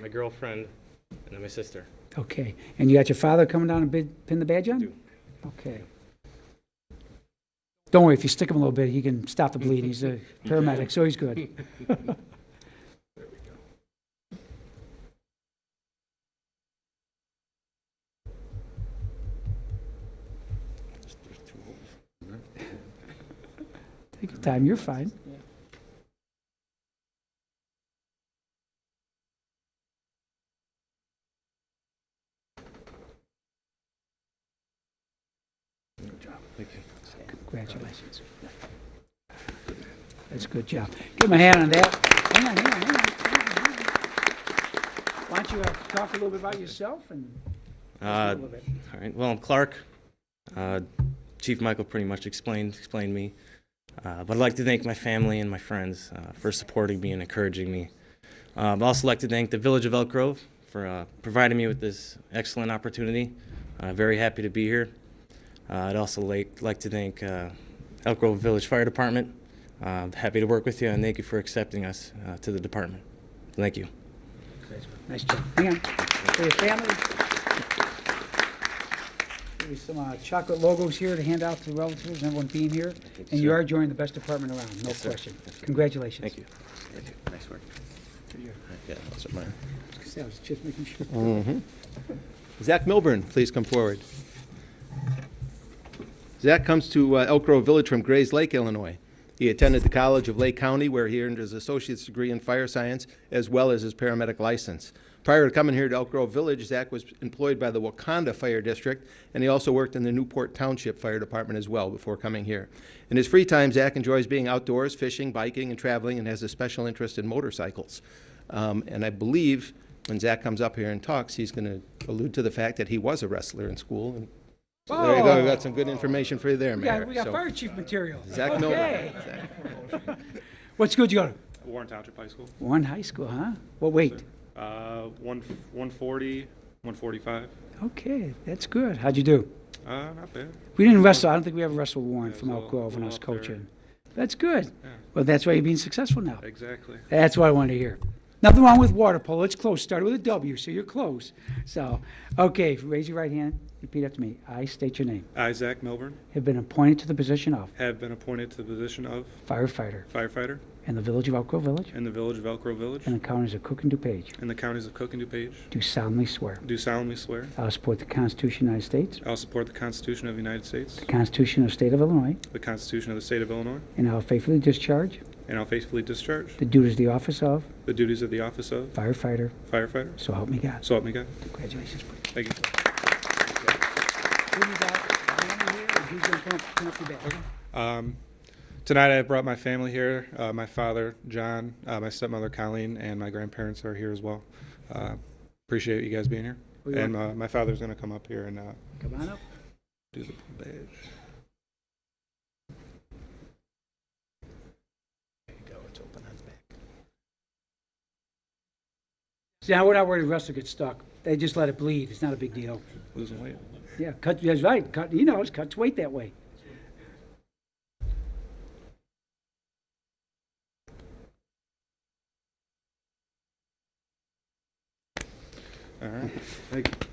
my girlfriend, and then my sister. Okay, and you got your father coming down and bid- pin the badge on? do. Okay. Don't worry, if you stick him a little bit, he can stop the bleed. He's uh, a paramedic, so he's good. Take your time, you're fine. Congratulations. That's a good job. Give him a hand on that. Hang on, hang on, hang on. Why don't you uh, talk a little bit about yourself and a Uh, little bit? All right. Well, I'm Clark. Uh, Chief Michael pretty much explained explained me, uh, but I'd like to thank my family and my friends uh, for supporting me and encouraging me. Uh, I'd also like to thank the Village of Elk Grove for uh, providing me with this excellent opportunity. Uh, very happy to be here. Uh, I'd also like like to thank uh, Elk Grove Village Fire Department. Uh, I'm happy to work with you and thank you for accepting us uh, to the department. Thank you. Nice job. Hang on. For your family. There's some uh, chocolate logos here to hand out to relatives, and everyone being here. And you sir. are joining the best department around, no question. Congratulations. Thank you. Nice work. Thank you. Yeah, that's mine. I was just making sure. Zach Milburn, please come forward. Zach comes to uh, Elk Grove Village from Grays Lake, Illinois. He attended the College of Lake County, where he earned his associate's degree in fire science as well as his paramedic license. Prior to coming here to Elk Grove Village, Zach was employed by the Wakanda Fire District, and he also worked in the Newport Township Fire Department as well before coming here. In his free time, Zach enjoys being outdoors, fishing, biking, and traveling, and has a special interest in motorcycles. Um, and I believe when Zach comes up here and talks, he's going to allude to the fact that he was a wrestler in school. And so there you go. We got some good information for you there, We Mayor. got, we got So, fire chief material. Zach Miller. Okay. What school did you go to? Warren Township High School. Warren High School, huh? Well, wait. Uh, one, 140, 145. Okay, that's good. How'd you do? Uh, not bad. We didn't wrestle. I don't think we ever wrestled Warren Yeah, from it's Elk all- Grove when I all was up there. coaching. That's good. Yeah. Well, that's why you're being successful now. Exactly. That's what I wanted to hear. Nothing wrong with water polo. It's close. Started with a W, so you're close. So, okay, raise your right hand. Repeat after me. I state your name. I, Zach Milburn, Have been appointed to the position of have been appointed to the position of firefighter firefighter in the village of Elk Grove Village in the village of Elk Grove Village and the counties of Cook and DuPage. in the counties of Cook and DuPage. Do solemnly swear. Do solemnly swear I will support the Constitution of the United States, I will support the Constitution of the United States, the Constitution of the State of Illinois, the Constitution of the State of Illinois, and I will faithfully discharge and I'll faithfully discharge the duties of the office of the duties of the office of firefighter. firefighter. So help me God. So help me God. Congratulations. buddy. Thank you. Who you got? Diana here, or who's gonna come up- come up your back? Um, tonight I brought my family here. Uh, my father, John, uh, my stepmother, Colleen, and my grandparents are here as well. Uh, appreciate you guys being here. We and uh, my father's going to come up here and uh, Come on up. do the badge. See, I would not worry if wrestler gets stuck. They just let it bleed. It's not a big deal. Losing weight. Yeah, cut, that's right. Cut, he knows, cuts weight that way. All right.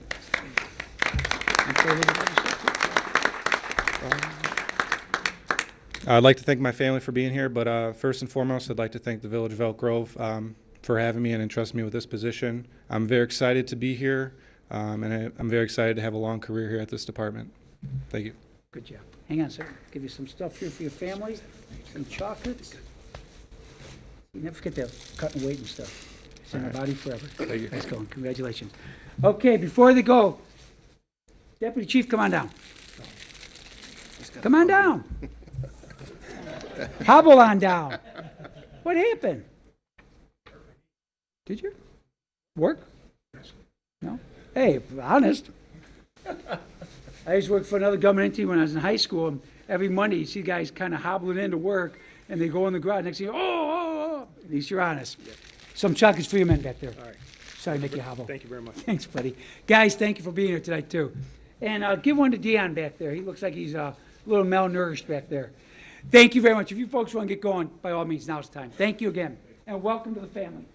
I'd like to thank my family for being here, but uh, first and foremost, I'd like to thank the Village of Elk Grove um, for having me and entrusting me with this position. I'm very excited to be here, um, and I, I'm very excited to have a long career here at this department. Thank you. Good job. Hang on, sir. Give you some stuff here for your family, some chocolates. You never forget that cutting weight and stuff. It's in our body forever. Thank you. Nice going. Congratulations. Okay, before they go, Deputy Chief, come on down. Come on down. Hobble on down. What happened? Did you? Work? No? Hey, honest. I used to work for another government entity when I was in high school, and every Monday, you see guys kind of hobbling into work, and they go in the garage, next thing, you know, oh, oh, oh, at least you're honest. Some chocolates for your men back there. All right. Sorry to make you hobble. you very much. Thanks, buddy. Guys, thank you for being here tonight, too. And uh, give one to Dion back there. He looks like he's uh, a little malnourished back there. Thank you very much. If you folks want to get going, by all means, now's the time. Thank you again, and welcome to the family.